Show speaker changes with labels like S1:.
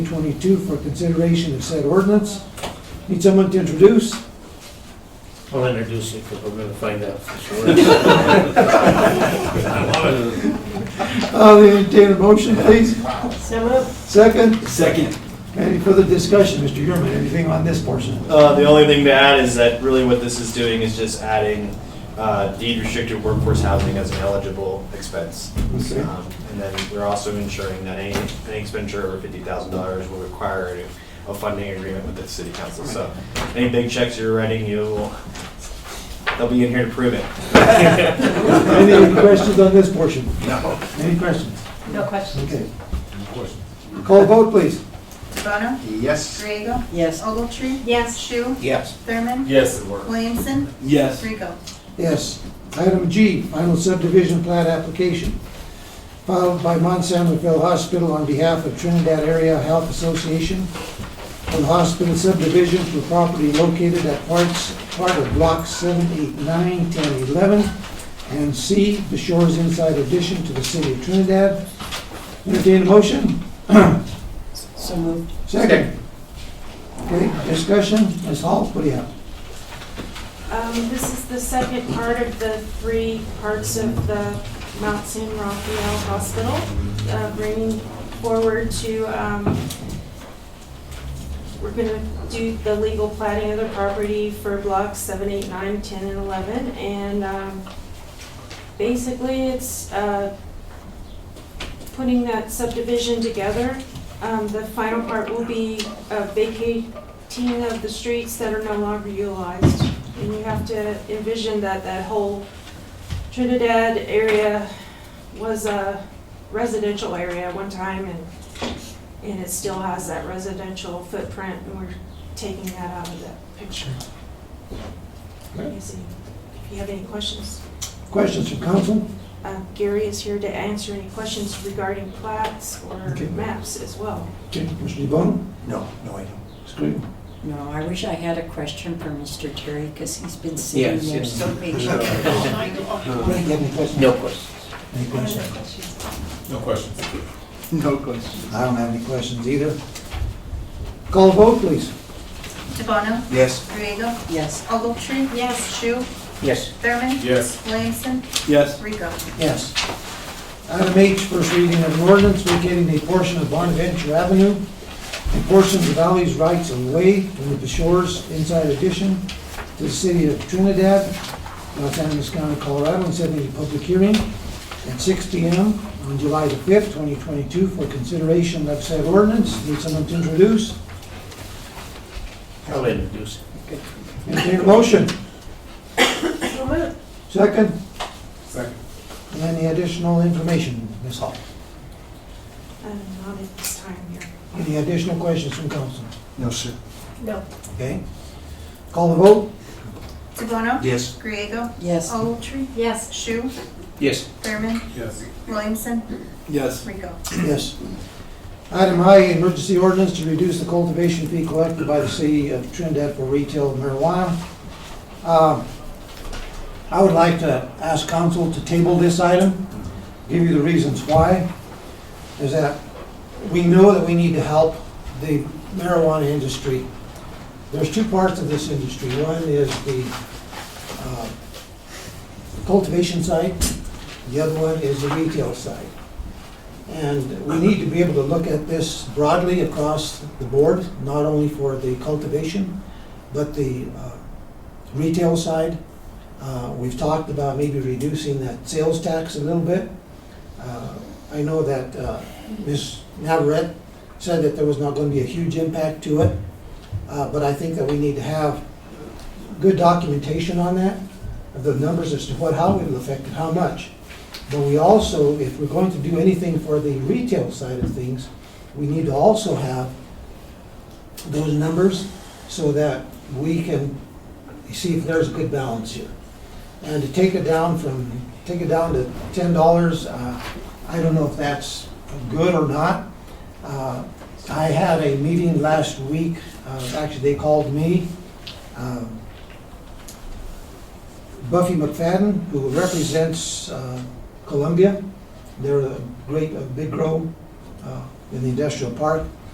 S1: 22 for consideration of said ordinance. Need someone to introduce?
S2: I'll introduce it because we're going to find out for sure.
S1: I'll Uh, entertain a motion, please.
S3: So moved.
S1: Second,
S4: Second.
S1: any further discussion, Mr. Yurman, anything on this portion?
S4: Uh, the only thing to add is that really what this is doing is just adding uh, deed restricted workforce housing as an eligible expense.
S1: Okay.
S4: Um, And then we're also ensuring that any, any expenditure over fifty thousand dollars will require a- a funding agreement with the city council. So any big checks you're writing, you'll, they'll be in here to prove it.
S1: Any questions on this portion? No. Any questions?
S3: No question.
S1: Okay. Call vote, please.
S5: Bono?
S4: Yes.
S5: Griego?
S3: Yes.
S5: Ogletree?
S3: Yes.
S5: Shu?
S1: Yes.
S5: Thurman?
S4: Yes.
S5: Williamson?
S4: Yes.
S5: Rico?
S1: Yes. Item G, final subdivision plat application filed by Mount San Rafael Hospital on behalf of Trinidad Area Health Association for the hospital subdivision for property located at parts, part of blocks 7, 8, 9, 10, 11, and C, the Shores Inside addition to the city of Trinidad. Entertained motion?
S3: So moved.
S1: Second. Okay, discussion, Ms. Hall, what do you have?
S6: Um, This is the second part of the three parts of the Mount San Rafael Hospital, uh, bringing forward to, um, we're going to do the legal plating of the property for blocks 7, 8, 9, 10, and 11. And um, basically, it's uh, putting that subdivision together. Um, The final part will be uh, vacating of the streets that are no longer utilized. And you have to envision that that whole Trinidad area was a residential area at one time and, and it still has that residential footprint and we're taking that out of the picture.
S1: Okay.
S6: Easy. If you have any questions,
S1: Questions from council?
S6: uh, Gary is here to answer any questions regarding plats or
S1: Okay.
S6: maps as well.
S1: Okay, Commissioner DeBonne?
S7: No, no, I don't.
S1: Screen.
S3: No, I wish I had a question for Mr. Terry because he's been sitting
S2: Yes,
S3: there
S2: yes.
S3: so patiently.
S1: Frank, you have any questions?
S2: No question.
S1: Any questions?
S7: No questions.
S4: No question.
S1: I don't have any questions either. Call vote, please.
S5: DeBono?
S7: Yes.
S5: Griego?
S3: Yes.
S5: Ogletree?
S6: Yes.
S5: Shu?
S2: Yes.
S5: Thurman?
S7: Yes.
S5: Williamson?
S4: Yes.
S5: Rico?
S1: Yes. Item H, first reading of an ordinance vacating a portion of Bonaventure Avenue, a portion of the Valley's rights of way toward the shores inside addition to the city of Trinidad, Los Angeles County, Colorado, and setting a public hearing at 6 PM on July the 5th, 2022, for consideration of said ordinance. Need someone to introduce?
S2: I'll introduce it.
S1: Entertain a motion.
S6: So moved.
S1: Second,
S7: Second.
S1: any additional information, Ms. Hall?
S6: Um, Not at this time here.
S1: Any additional questions from council?
S7: No, sir.
S6: No.
S1: Okay? Call the vote?
S5: DeBono?
S7: Yes.
S5: Griego?
S3: Yes.
S5: Ogletree?
S6: Yes.
S5: Shu?
S2: Yes.
S5: Thurman?
S7: Yes.
S5: Williamson?
S7: Yes.
S5: Rico?
S1: Yes. Item I, emergency ordinance to reduce the cultivation fee collected by the city of Trinidad for retail marijuana. Uh, I would like to ask council to table this item, give you the reasons why. Is that we know that we need to help the marijuana industry. There's two parts of this industry. One is the uh, cultivation side, the other one is the retail side. And we need to be able to look at this broadly across the board, not only for the cultivation, but the uh, retail side. Uh, We've talked about maybe reducing that sales tax a little bit. Uh, I know that uh, Ms. Navarette said that there was not going to be a huge impact to it, uh, but I think that we need to have good documentation on that, of the numbers as to what, how it will affect and how much. But we also, if we're going to do anything for the retail side of things, we need to also have those numbers so that we can see if there's a good balance here. And to take it down from, take it down to ten dollars, uh, I don't know if that's good or not. Uh, I had a meeting last week, uh, actually they called me, um, Buffy McFadden, who represents, uh, Columbia. They're a great, a big grow uh, in the industrial park.